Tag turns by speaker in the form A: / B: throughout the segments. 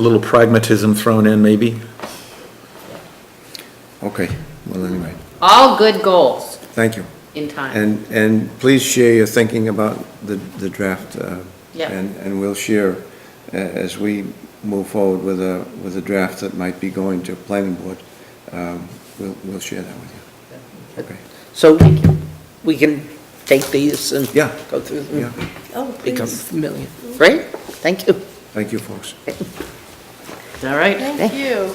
A: A little pragmatism thrown in, maybe?
B: Okay, well, anyway,
C: All good goals
B: thank you.
C: in time.
B: And, and please share your thinking about the, the draft. uh,
C: Yeah.
B: And, and we'll share a- as we move forward with a, with a draft that might be going to planning board. um, We'll, we'll share that with you. Okay,
D: So we can take these and
B: Yeah.
D: go through them,
B: yeah,
E: Oh,
D: become
E: please.
D: familiar. Great, thank you.
B: thank you, folks.
C: All right,
E: Thank you.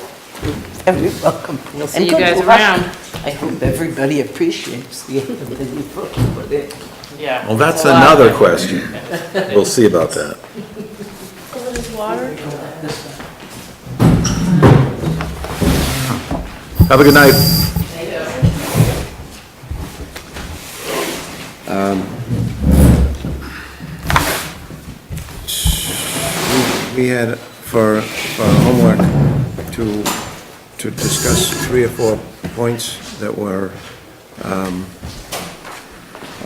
D: Very welcome.
C: we'll
D: And
C: see you
D: good
C: guys
D: luck.
C: around.
D: I hope everybody appreciates the effort that you put put in.
C: Yeah.
A: Well, that's
C: It's a lot.
A: another question. We'll see about that.
E: A little water?
A: Have a good night.
B: We had for, for homework to, to discuss three or four points that were um,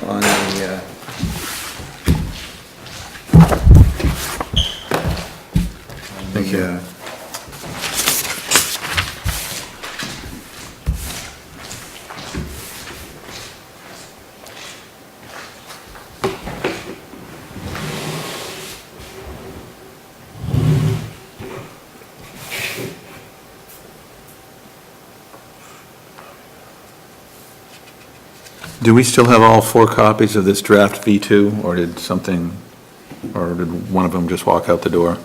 B: on the, uh, on the, uh,
A: Do we still have all four copies of this draft V2, or did something, or did one of them just walk out the door?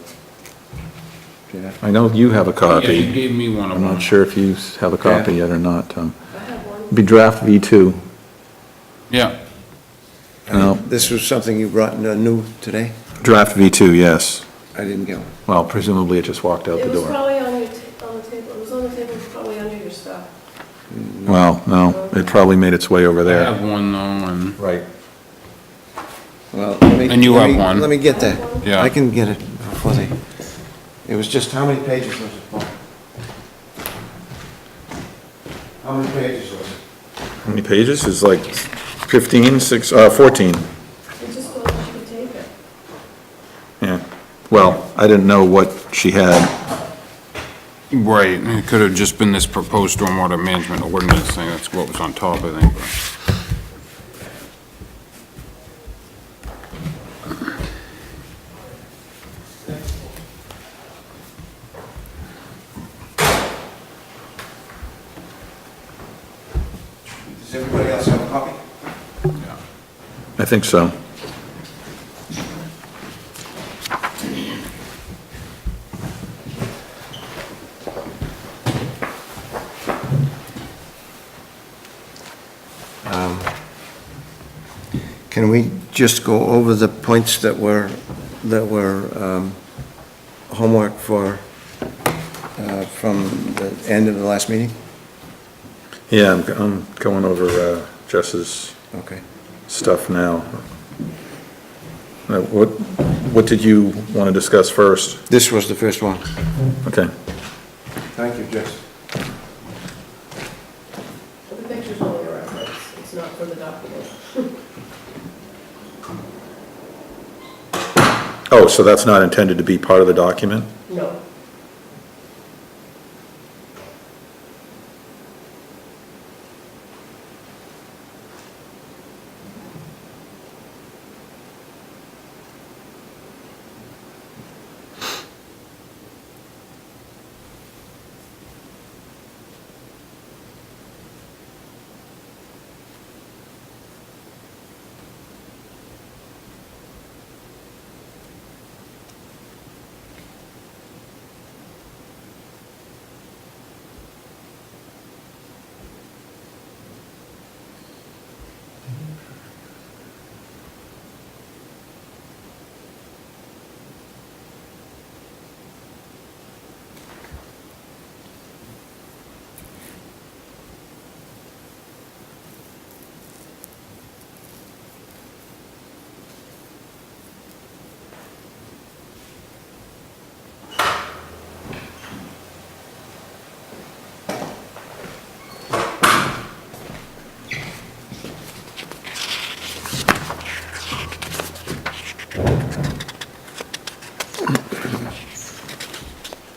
B: yeah.
A: I know you have a
F: Yeah, you
A: copy.
F: gave me one of
A: I'm
F: them.
A: not sure if you have a copy yet or not, Tom. Be draft V2.
F: Yeah,
A: No,
B: This was something you brought uh, new today?
A: draft V2, yes.
B: I didn't get one.
A: Well, presumably it just walked out
G: It
A: the
G: was
A: door.
G: probably on your, ta- on the table, it was on the table, probably under your stuff.
A: Well, no, it probably made its way over
F: I
A: there.
F: have one though, and,
A: Right.
B: Well, let me-
F: And you
B: let
F: have
B: me-
F: one.
B: Let me get that.
F: Yeah.
B: I can get it before they, it was just, how many pages was it, Paul? How many pages was it?
A: How many pages? It's like 15, 6, uh, 14.
G: It just thought you could take it.
A: Yeah, well, I didn't know what she had.
F: right, and it could have just been this proposed stormwater management ordinance thing, that's what was on top, I think. but-
B: Does everybody else have a copy?
A: I think so.
B: Um, Can we just go over the points that were, that were um, homework for, uh, from the end of the last meeting?
A: Yeah, I'm, I'm going over uh, Jess's
B: Okay.
A: stuff now. Uh, What, what did you want to discuss first?
B: This was the first one.
A: Okay,
B: Thank you, Jess.
G: But The picture's only a reference, it's not for the document.
A: oh, so that's not intended to be part of the document?